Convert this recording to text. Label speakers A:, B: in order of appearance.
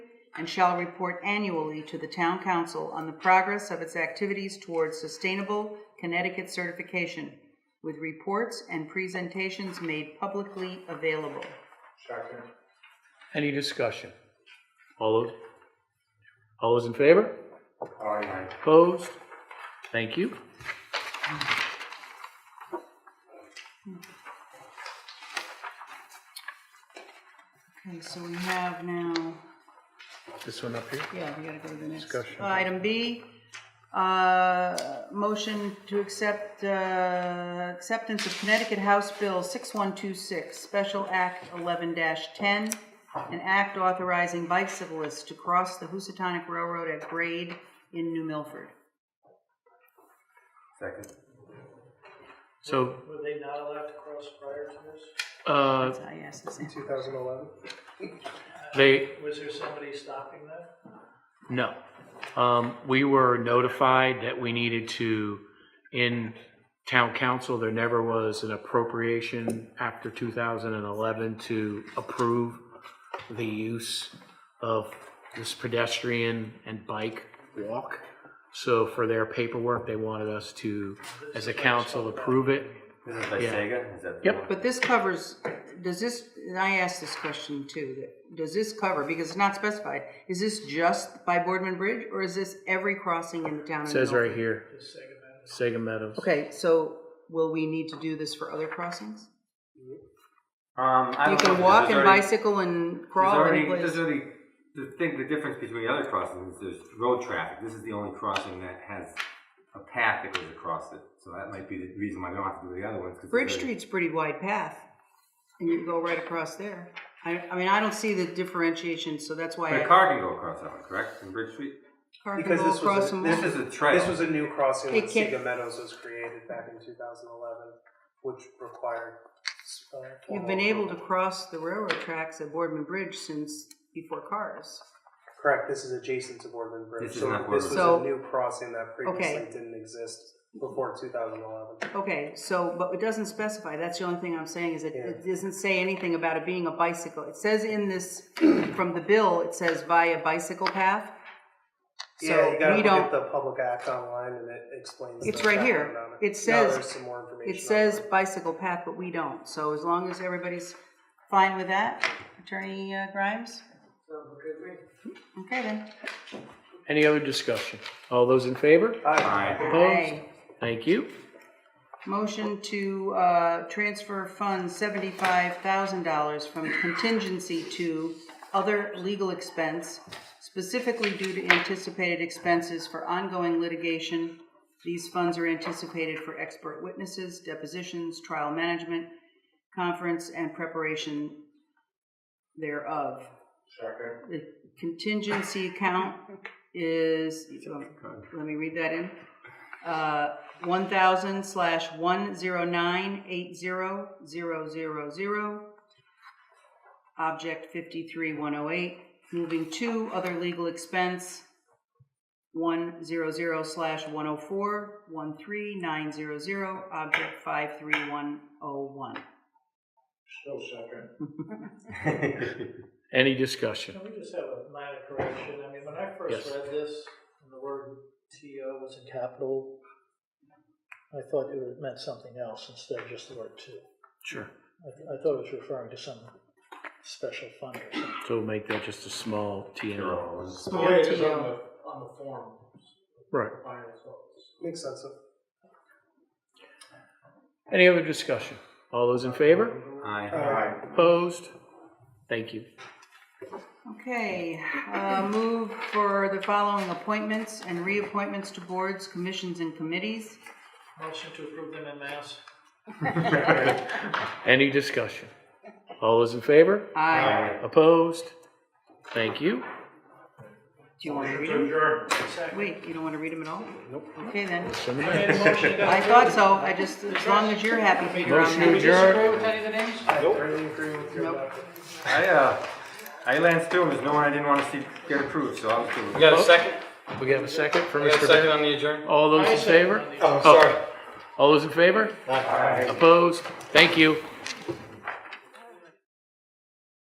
A: and shall report annually to the town council on the progress of its activities towards sustainable Connecticut certification, with reports and presentations made publicly available.
B: Second.
C: Any discussion? All those, all those in favor?
B: Aye.
C: Opposed? Thank you.
A: Okay, so we have now,
C: This one up here?
A: yeah, we gotta go to the next.
C: Discussion.
A: Item B, uh, motion to accept, uh, acceptance of Connecticut House Bill 6126, Special Act 11-10, an act authorizing bicyclists to cross the Housatonic Railroad at grade in New Milford.
B: Second.
C: So,
D: Were they not allowed to cross prior to this?
C: uh,
A: I asked the same.
B: 2011?
C: they,
D: Was there somebody stopping them?
C: No. Um, we were notified that we needed to, in town council, there never was an appropriation after 2011 to approve the use of this pedestrian and bike walk. So for their paperwork, they wanted us to, as a council, approve it.
B: This is by
C: Yeah.
B: Sega? Is that the
C: Yep.
B: one?
A: But this covers, does this, and I asked this question too, that, does this cover, because it's not specified, is this just by Boardman Bridge, or is this every crossing in the town? of
C: Says
A: Milford?
C: right here, Sega Meadows.
A: Okay, so will we need to do this for other crossings?
B: Um, I
A: You can
B: don't know, because
A: walk
B: there's
A: and
B: already-
A: bicycle and
B: There's
A: crawl
B: already,
A: in
B: there's
A: place.
B: already, the thing, the difference between the other crossings is there's road traffic. This is the only crossing that has a path that goes across it. So that might be the reason why we don't have to do the other ones. 'cause there's
A: Bridge
B: already-
A: Street's a pretty wide path, and you go right across there. I, I mean, I don't see the differentiation, so that's why
B: But a
A: I.
B: car can go across that one, correct? In Bridge Street?
A: car can
E: Because
A: go
E: this was
A: across
E: a-
A: them
B: This
A: all.
B: is a trail.
E: This was a new crossing when
A: It can't-
E: Sega Meadows was created back in 2011, which required. uh,
A: You've
E: formal
A: been able to
E: approval.
A: cross the railroad tracks at Boardman Bridge since before cars.
E: Correct, this is adjacent to Boardman Bridge.
B: This is
E: so
B: not
E: this was
A: Boardman.
E: a new crossing that previously
A: Okay.
E: didn't exist before 2011.
A: Okay, so, but it doesn't specify, that's the only thing I'm saying, is it, it
E: Yeah.
A: doesn't say anything about it being a bicycle. It says in this, from the bill, it says via bicycle path.
E: yeah,
A: So
E: you gotta
A: we
E: look at
A: don't,
E: the public act online and it explains.
A: It's
E: the
A: right here.
E: background on
A: It
E: Now
A: says-
E: there's some more information.
A: it says
E: on
A: bicycle path, but we don't. So as long as everybody's fine with that, Attorney uh, Grimes? Okay then.
C: Any other discussion? All those in favor?
E: it. Aye.
B: Aye.
C: Opposed? Thank you.
A: Motion to uh, transfer funds seventy-five thousand dollars from contingency to other legal expense, specifically due to anticipated expenses for ongoing litigation. These funds are anticipated for expert witnesses, depositions, trial management, conference, and preparation thereof.
B: Second.
A: The contingency account is, let me read that in. Uh, one thousand slash one zero nine eight zero zero zero zero. Object fifty-three one oh eight, moving to other legal expense. One zero zero slash one oh four, one three nine zero zero, object five three one oh one.
D: Still second.
C: Any discussion?
D: Can we just have a minor correction? I mean, when I first
C: Yes.
D: read this, and the word TO was in capital, I thought it was- meant something else instead of just the word TO.
C: Sure.
D: I th- I thought it was referring to some special fund or something.
C: So we'll make that just a small T and O.
B: Zeros.
A: Small TO.
D: on the form,
C: Right.
E: Makes sense.
C: Any other discussion? All those in favor?
B: Aye.
C: Opposed? Thank you.
A: Okay, uh, move for the following appointments and reappointments to boards, commissions, and committees.
D: Motion to approve them in mass?
C: Any discussion? All those in favor?
A: I,
C: Opposed? Thank you.
A: do you want to read them? Wait, you don't want to read them at all? Nope. Okay then.
C: Send them
D: I
C: back.
D: made a motion, you got
A: I
D: it.
A: thought so, I just, as long as you're happy, Peter, I'm
C: Motion to
A: happy.
C: adjourn.
D: with any of the names?
E: I really agree with your
A: Nope.
E: method.
B: I, uh, I glanced through them. There's no one I didn't want to see get approved, so I was cool with it.
F: We got a second?
C: We have a second for
F: We got a
C: Mr.
F: second
C: Bennett.
F: on the adjourn?
C: All those in favor?
F: Oh, sorry.
C: All those in favor? Opposed? Thank you.